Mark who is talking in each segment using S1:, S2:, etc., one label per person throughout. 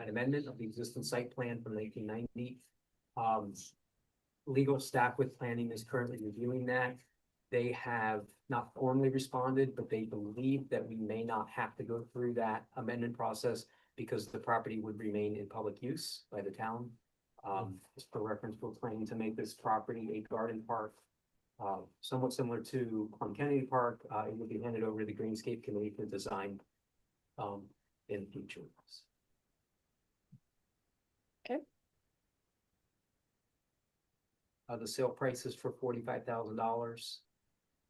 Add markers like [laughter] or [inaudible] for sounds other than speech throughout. S1: an amendment of the existing site plan from nineteen ninety. Um, legal staff with planning is currently reviewing that. They have not formally responded, but they believe that we may not have to go through that amendment process because the property would remain in public use by the town. Um, just for reference, we're planning to make this property a garden park. Uh, somewhat similar to on Kennedy Park, uh, it will be handed over to the Greenscape Committee for design. Um, in future.
S2: Okay.
S1: Uh, the sale price is for forty-five thousand dollars.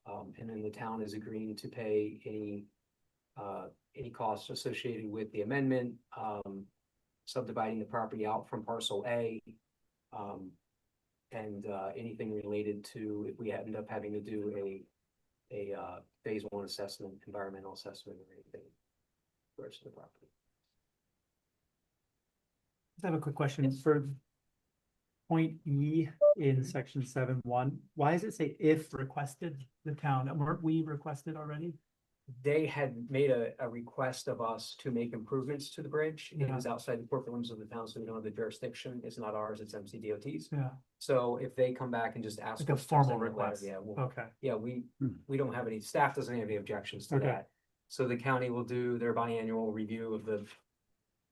S1: Um, and then the town is agreeing to pay any, uh, any costs associated with the amendment, um, subdividing the property out from parcel A. Um, and, uh, anything related to if we end up having to do a, a, uh, phase one assessment, environmental assessment or anything. for the rest of the property.
S3: I have a quick question for point E in section seven one. Why does it say if requested the town? And Weren't we requested already?
S1: They had made a, a request of us to make improvements to the bridge. It was outside the corporate limits of the town, so we don't have the jurisdiction. It's not ours, it's MCDOT's.
S3: Yeah,
S1: So if they come back and just ask.
S3: Like a
S1: us to
S3: formal
S1: send a letter,
S3: request. Oh.
S1: Yeah, we'll-
S3: okay,
S1: yeah, we,
S3: Hmm.
S1: we don't have any, staff doesn't have any objections to
S3: Okay.
S1: that. So the county will do their biannual review of the,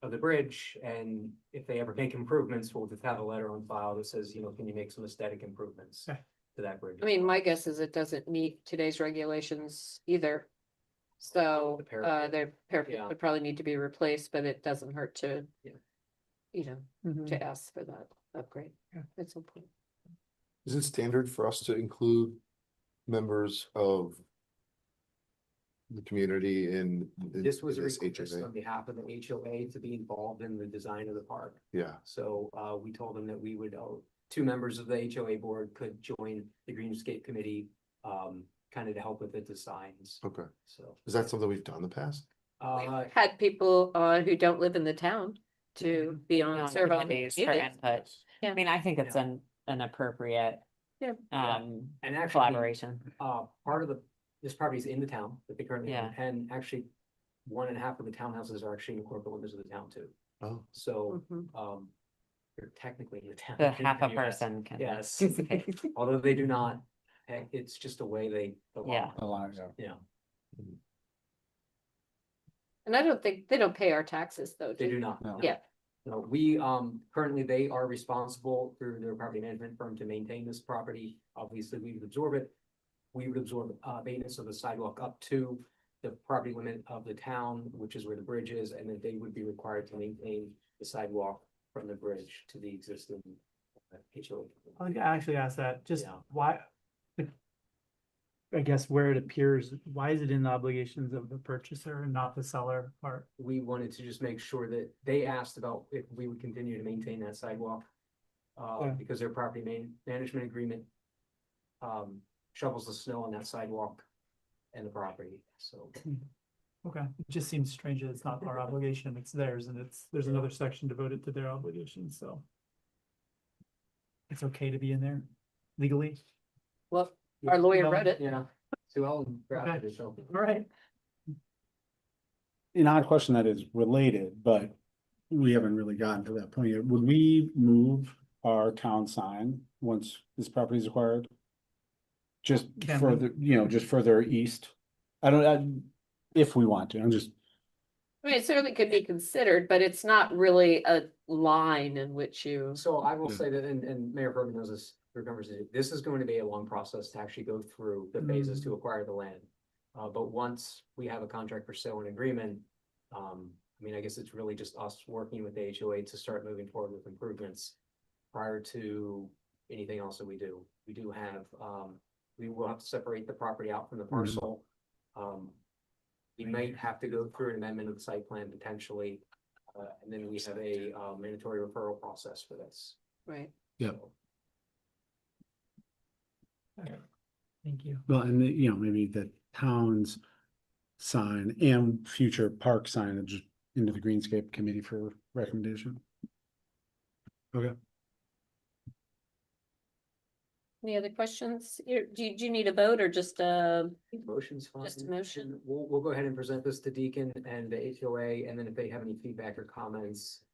S1: of the bridge, and if they ever make improvements, we'll just have a letter on file that says, you know, can you make some aesthetic improvements
S3: Okay.
S1: to that bridge?
S2: I mean, my guess is it doesn't meet today's regulations either. So,
S1: The parapet.
S2: uh, their parapet
S1: Yeah.
S2: would probably need to be replaced, but it doesn't hurt to.
S1: Yeah.
S2: You know,
S3: Mhm.
S2: to ask for that upgrade
S3: Yeah.
S2: at some point.
S4: Is it standard for us to include members of the community in? in
S1: This was a
S4: this
S1: request
S4: HOA?
S1: on behalf of the HOA to be involved in the design of the park.
S4: Yeah,
S1: So uh, we told them that we would, uh, two members of the HOA board could join the Greenscape Committee, um, kind of to help with the designs,
S4: okay.
S1: so.
S4: Is that something we've done in the past?
S1: Uh,
S2: We've Had people on who don't live in the town to
S1: Mm-hmm.
S2: be on,
S5: On
S2: serve on. the
S5: committees for
S1: Uh,
S2: committees.
S5: input.
S2: Yeah.
S5: I mean, I think it's
S1: Yeah.
S5: an, an appropriate.
S2: Yeah.
S1: Yeah.
S5: Um,
S1: and actually,
S5: collaboration.
S1: uh, part of the, this property is in the town that they currently own, and actually one and a half of the townhouses are actually in the corporate limits of the town too.
S4: Oh,
S1: So,
S2: Mhm.
S1: um, they're technically in the town.
S5: Hmm. The half
S1: [laughs]
S5: a
S1: in the US.
S5: person can.
S1: Yes.
S5: [laughs] participate.
S1: Although they do not, eh, it's just a way they. the law
S5: Yeah.
S6: The line,
S1: allows, Yeah,
S2: And I don't think, they don't pay our taxes though.
S1: they do not.
S6: No.
S2: Yeah.
S1: No, we, um, currently they are responsible through their property management firm to maintain this property. Obviously, we would absorb it. We would absorb, uh, maintenance of the sidewalk up to the property limit of the town, which is where the bridge is, and then they would be required to maintain the sidewalk from the bridge to the existing uh, HOA.
S3: I think I actually asked that, just
S1: Yeah.
S3: why? I guess where it appears, why is it in the obligations of the purchaser and not the seller part?
S1: we wanted to just make sure that they asked about if we would continue to maintain that sidewalk. Uh,
S3: Yeah.
S1: because their property man- management agreement. Um, shovels the snow on that sidewalk and the property, so.
S3: Okay, it just seems strange that it's not [laughs] our obligation, it's theirs, and it's, there's another section devoted to their obligations, so. It's okay to be in there legally,
S2: Well, Our lawyer
S3: No,
S2: read it.
S1: Yeah, Sue Ellen drafted it, so.
S3: all right.
S6: an odd question that is related, but we haven't really gotten to that point yet. Would we move our town sign once this property is acquired? Just
S3: Can we?
S6: further, you know, just further east? I don't, I, if we want to, I'm just,
S2: I mean, it certainly could be considered, but it's not really a line in which you.
S1: So I will
S4: Yeah.
S1: say that, and, and Mayor Berman knows this, remembers it, this is going to be a long process to actually go through the phases to acquire the land. Uh, but once we have a contract for sale and agreement, um, I mean, I guess it's really just us working with the HOA to start moving forward with improvements. Prior to anything else that we do, we do have, um, we will have to separate the property out from the parcel. Um, we might have to go through an amendment of the site plan potentially, uh, and then we have a, uh, mandatory referral process for this.
S2: Right.
S3: Thank you.
S6: well, and you know, maybe the town's sign and future park signage into the Greenscape Committee for recommendation.
S2: Any other questions? You- Do you, do you need a vote or just uh
S1: Motion's fine.
S2: Just a motion.
S1: And We'll, we'll go ahead and present this to Deacon and the HOA, and then if they have any feedback or comments,